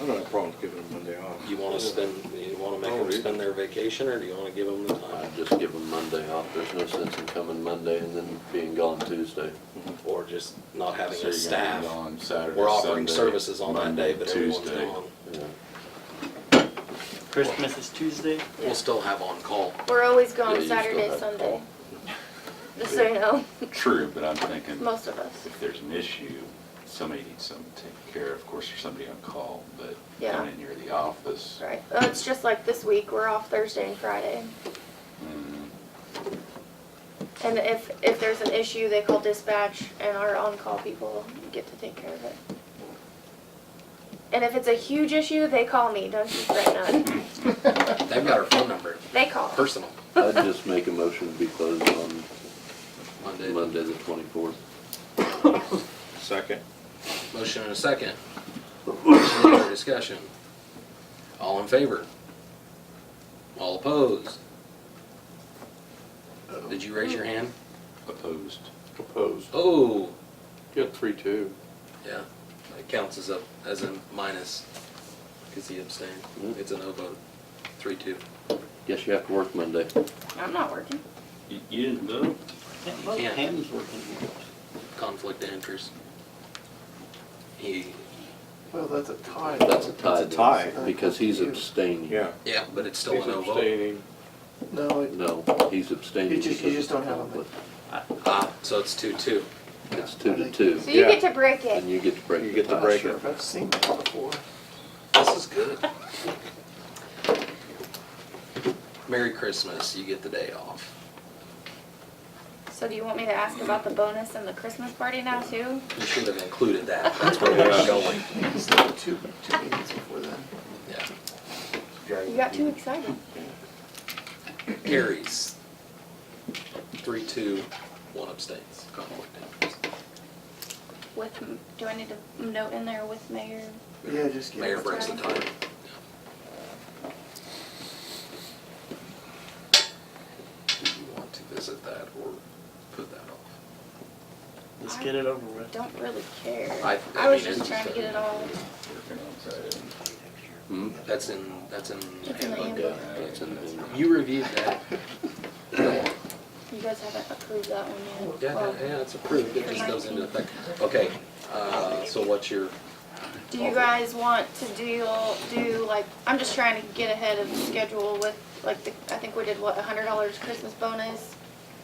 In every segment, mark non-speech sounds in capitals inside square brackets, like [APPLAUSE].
I don't have problems giving them Monday off. You wanna spend, you wanna make Oh, them yeah. spend their vacation, or do you wanna give them the I time? just give them Monday off, there's no sense in coming Monday and then being gone Tuesday. Or just not having Mm-hmm. So a you're gonna staff? be gone Saturday, We're offering Sunday, services on that Monday, day, but everyone's Tuesday. gone. Yeah. Christmas is Tuesday. We'll still have on-call. We're always Yeah, gone you still Saturday, have- [LAUGHS] Sunday. Just so you know, [LAUGHS] True, but I'm thinking, most of us. if there's an issue, somebody needs something taken care of, of course, there's somebody on call, but Yeah. down in near the office. Right. Oh, it's just like this week, we're off Thursday and Friday. mm, And if, if there's an issue, they call dispatch and our on-call people get to take care of it. And if it's a huge issue, they call me, don't you fret none. They've got our phone number, They call. personal, I'd just make a motion to be closed on Monday. Monday the twenty-fourth. Second. Motion and a second. Any other discussion? All in favor? All opposed? Did you raise your hand? Opposed. Opposed. Oh, You got three, two. yeah, it counts as a, as a minus, because he abstained. It's a no vote, three, two. Guess you have to work Monday. I'm not working. You, you didn't vote? Can't vote. can't. Pam's working. conflict of interest. He, Well, that's a tie. That's a tie. It's a tie. then, Because he's abstaining. Yeah. yeah, but it's still He's a no Mm-hmm. vote. abstaining. No, it- No, he's abstaining. You just- you because just don't have a- of conflict. Ah, so it's two, two. It's two to two, So you Yeah. get to break it. and you get to break the tie. You get to break sure it. if I've seen that before. This is good. Merry Christmas, you get the day off. So do you want me to ask about the bonus and the Christmas party now too? You should have included that, [LAUGHS] that's where we're going. It's like two, two meetings before then. Yeah. You got too excited. Carries. Three, two, one abstains, conflict of interest. With, m- do I need to note in there with mayor? Yeah, just give Mayor us breaks the time. tie. Do you want to visit that or put that off? Let's get it over I with. Don't really care. I- I I was mean, just it's- trying to get it all. Working on Friday. Hmm? That's in, that's in It's in the handbook. handbook. That's in the- You reviewed that. You guys haven't approved that one yet. Yeah, Well, yeah, it's approved, it just goes into effect. Okay, uh, so what's your, Do you guys want to deal, do like, I'm just trying to get ahead of the schedule with, like, the I think we did what, a hundred dollars Christmas bonus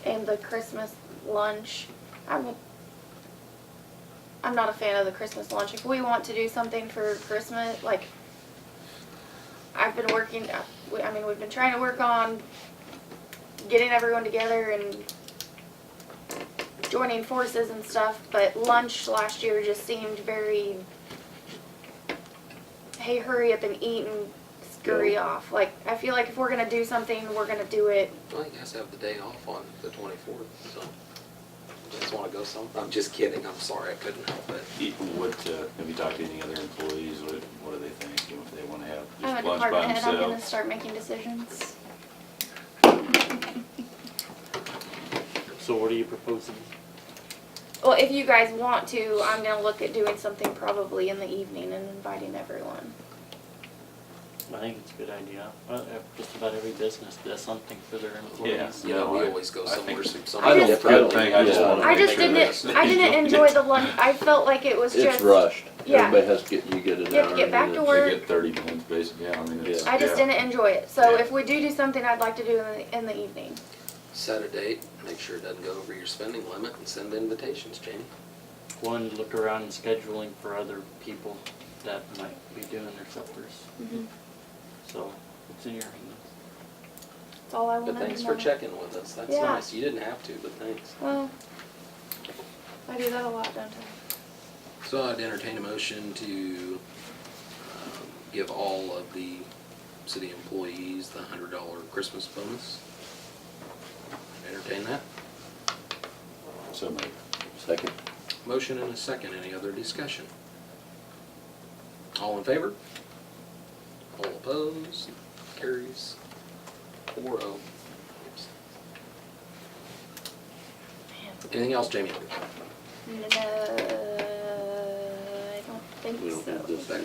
and the Christmas lunch. I'm, I'm not a fan of the Christmas lunch. If we want to do something for Christmas, like, I've been working, uh, we- I mean, we've been trying to work on getting everyone together and joining forces and stuff, but lunch last year just seemed very hey, hurry up and eat and scurry off. Like, I feel like if we're gonna do something, we're gonna do it. well, you guys have the day off on the twenty-fourth, so. Just wanna go some, I'm just kidding, I'm sorry, I couldn't help it. You- What, uh, have you talked to any other employees, what, what do they think, you know, if they wanna have I'm a just lunch by department head, I'm gonna themselves? start making decisions. So what are you proposing? Well, if you guys want to, I'm gonna look at doing something probably in the evening and inviting everyone. I think it's a good idea. Well, if Just about every business does something for their employees. You know, No, we I- always go I think somewhere, it's- somewhere. I I think just- it's a good thing, I just Yeah. wanna I make just sure didn't, that- I didn't enjoy [LAUGHS] the lunch, I felt like it was just. It's rushed. yeah. Everybody has to get, you get an You have hour. to get and back then to it's- work. They get thirty minutes, basically, yeah, I mean, it's. I just yeah. didn't enjoy it, so Yeah. if we do do something, I'd like to do in the, in the evening. Set a date, make sure it doesn't go over your spending limit and send invitations, Jamie. One, look around and scheduling for other people that might be doing their suppers. So it's in your hands. That's all I But wanted to know. thanks for checking with us, that's Yeah. nice, you didn't have to, but thanks. Well, I do that a lot, don't I? So I'd entertain a motion to um, give all of the city employees the hundred dollar Christmas bonus. Entertain that. So maybe. Second. Motion and a second. Any other discussion? All in favor? All opposed? Carries four oh. Anything else, Jamie? No, Uh, I don't think We don't so. have this.